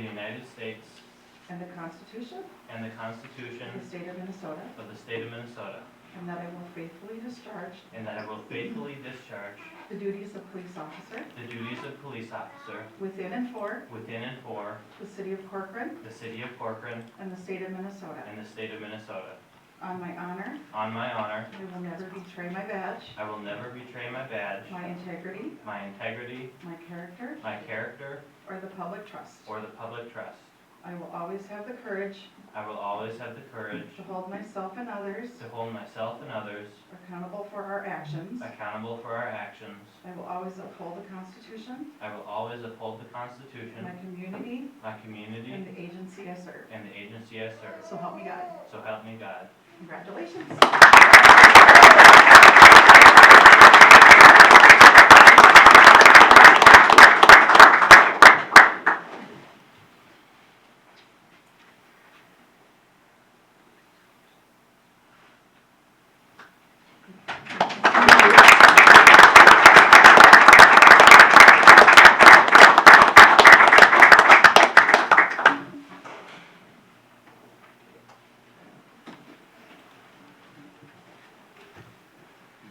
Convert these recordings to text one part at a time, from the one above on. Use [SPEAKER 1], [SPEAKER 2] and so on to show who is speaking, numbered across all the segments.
[SPEAKER 1] United States
[SPEAKER 2] and the Constitution
[SPEAKER 1] and the
[SPEAKER 2] of the
[SPEAKER 1] Constitution
[SPEAKER 2] State of Minnesota,
[SPEAKER 1] of the State of Minnesota,
[SPEAKER 2] and that I will faithfully discharge
[SPEAKER 1] and that I will faithfully discharge
[SPEAKER 2] the duties of police officer
[SPEAKER 1] the duties of police officer
[SPEAKER 2] within and for
[SPEAKER 1] within and for
[SPEAKER 2] the City of Corcoran
[SPEAKER 1] the City of Corcoran
[SPEAKER 2] and the State of Minnesota.
[SPEAKER 1] and the State of Minnesota.
[SPEAKER 2] On my honor,
[SPEAKER 1] On my honor,
[SPEAKER 2] I will never betray my badge,
[SPEAKER 1] I will never betray my badge,
[SPEAKER 2] my integrity,
[SPEAKER 1] my integrity,
[SPEAKER 2] my character,
[SPEAKER 1] my character,
[SPEAKER 2] or the public trust.
[SPEAKER 1] or the public trust.
[SPEAKER 2] I will always have the courage
[SPEAKER 1] I will always have the courage
[SPEAKER 2] to hold myself and others
[SPEAKER 1] to hold myself and others
[SPEAKER 2] accountable for our actions.
[SPEAKER 1] accountable for our actions.
[SPEAKER 2] I will always uphold the Constitution,
[SPEAKER 1] I will always uphold the
[SPEAKER 2] my
[SPEAKER 1] Constitution,
[SPEAKER 2] community,
[SPEAKER 1] my community,
[SPEAKER 2] and the agency I serve.
[SPEAKER 1] and the agency I serve.
[SPEAKER 2] So help me God.
[SPEAKER 1] So help me God.
[SPEAKER 2] Congratulations.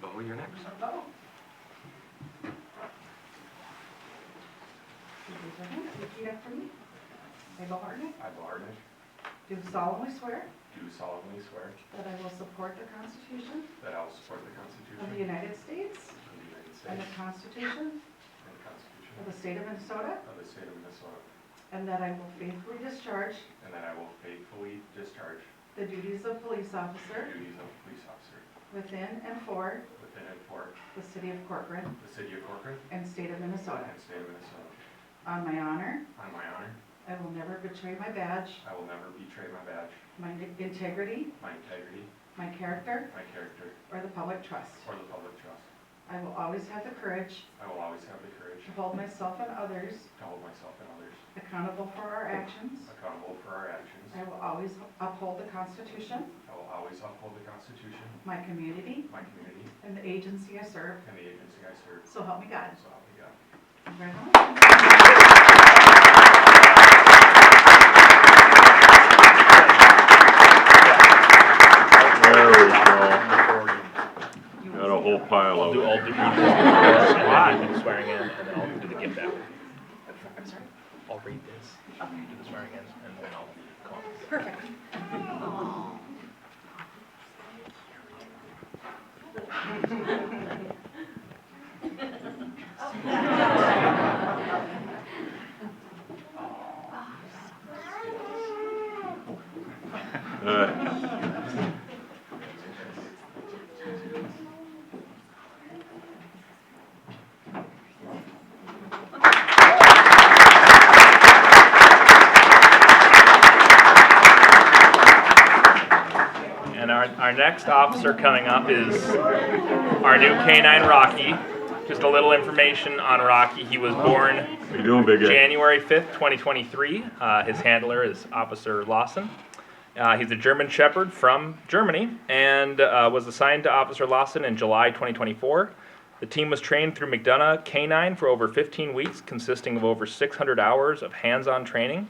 [SPEAKER 3] Bo, you're next.
[SPEAKER 2] Bravo. Please raise your hand. Repeat after me. I, Bo Hartnett,
[SPEAKER 3] I, Bo Hartnett,
[SPEAKER 2] do solemnly swear
[SPEAKER 3] do solemnly swear
[SPEAKER 2] that I will support the Constitution
[SPEAKER 3] that I will support the
[SPEAKER 2] of the
[SPEAKER 3] Constitution
[SPEAKER 2] United States
[SPEAKER 3] of the United
[SPEAKER 2] and
[SPEAKER 3] States
[SPEAKER 2] the Constitution
[SPEAKER 3] and the Constitution
[SPEAKER 2] of the State of Minnesota,
[SPEAKER 3] of the State of Minnesota,
[SPEAKER 2] and that I will faithfully discharge
[SPEAKER 3] and that I will faithfully discharge
[SPEAKER 2] the duties of police
[SPEAKER 3] the
[SPEAKER 2] officer
[SPEAKER 3] duties of police officer
[SPEAKER 2] within and for
[SPEAKER 3] within and for
[SPEAKER 2] the City of Corcoran
[SPEAKER 3] the City of Corcoran
[SPEAKER 2] and State of Minnesota.
[SPEAKER 3] and State of Minnesota.
[SPEAKER 2] On my honor,
[SPEAKER 3] On my honor,
[SPEAKER 2] I will never betray my badge,
[SPEAKER 3] I will never betray my badge,
[SPEAKER 2] my integrity,
[SPEAKER 3] my integrity,
[SPEAKER 2] my character,
[SPEAKER 3] my character,
[SPEAKER 2] or the public trust.
[SPEAKER 3] or the public trust.
[SPEAKER 2] I will always have the courage
[SPEAKER 3] I will always have the courage
[SPEAKER 2] to hold myself and others
[SPEAKER 3] to hold myself and others
[SPEAKER 2] accountable for our actions.
[SPEAKER 3] accountable for our actions.
[SPEAKER 2] I will always uphold the Constitution,
[SPEAKER 3] I will always uphold the Constitution,
[SPEAKER 2] my community,
[SPEAKER 3] my community,
[SPEAKER 2] and the agency I serve.
[SPEAKER 3] and the agency I serve.
[SPEAKER 2] So help me God.
[SPEAKER 3] So help me God.
[SPEAKER 2] Congratulations.
[SPEAKER 4] There we go.
[SPEAKER 2] You
[SPEAKER 4] Got a whole pile
[SPEAKER 5] I'll
[SPEAKER 4] of
[SPEAKER 5] do, I'll
[SPEAKER 4] it.
[SPEAKER 5] do, you do the and then do the swearing in, and then I'll do the gift out.
[SPEAKER 2] I'm sorry.
[SPEAKER 5] I'll read this, do the swearing in, and then I'll call.
[SPEAKER 2] Perfect.
[SPEAKER 4] Uh,
[SPEAKER 5] And our, our next officer coming up is our new K-9 Rocky. Just a little information on Rocky, he was born
[SPEAKER 4] How you doing, big guy?
[SPEAKER 5] January 5th, 2023. Uh, his handler is Officer Lawson. Uh, he's a German Shepherd from Germany and uh, was assigned to Officer Lawson in July 2024. The team was trained through McDonough K9 for over 15 weeks, consisting of over 600 hours of hands on training.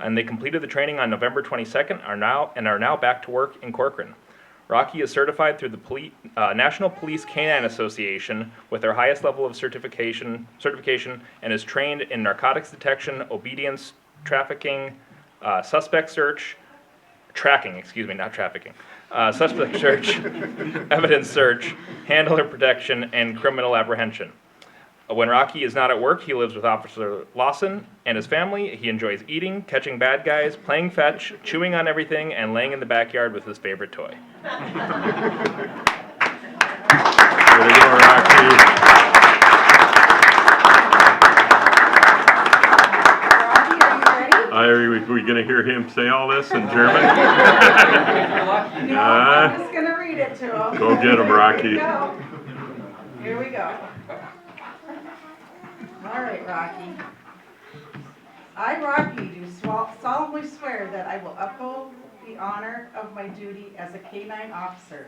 [SPEAKER 5] And they completed the training on November 22nd are now, and are now back to work in Corcoran. Rocky is certified through the Poli- uh, National Police Canine Association with their highest level of certification, certification and is trained in narcotics detection, obedience, trafficking, uh, suspect search, tracking, excuse me, not trafficking, uh, suspect search, evidence search, handler protection, and criminal apprehension. Uh, When Rocky is not at work, he lives with Officer Lawson and his family. He enjoys eating, catching bad guys, playing fetch, chewing on everything, and laying in the backyard with his favorite toy.
[SPEAKER 4] Way to go, Rocky.
[SPEAKER 2] Rocky, are you ready?
[SPEAKER 4] I, are we, we gonna hear him say all this in German?
[SPEAKER 2] No,
[SPEAKER 4] Uh.
[SPEAKER 2] I'm just gonna read it to him.
[SPEAKER 4] Go get 'em,
[SPEAKER 2] Here
[SPEAKER 4] Rocky.
[SPEAKER 2] we go. Here we go. All right, Rocky. I, Rocky, do swal- solemnly swear that I will uphold the honor of my duty as a K-9 officer,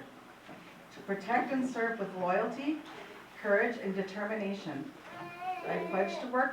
[SPEAKER 2] to protect and serve with loyalty, courage, and determination. I pledge to work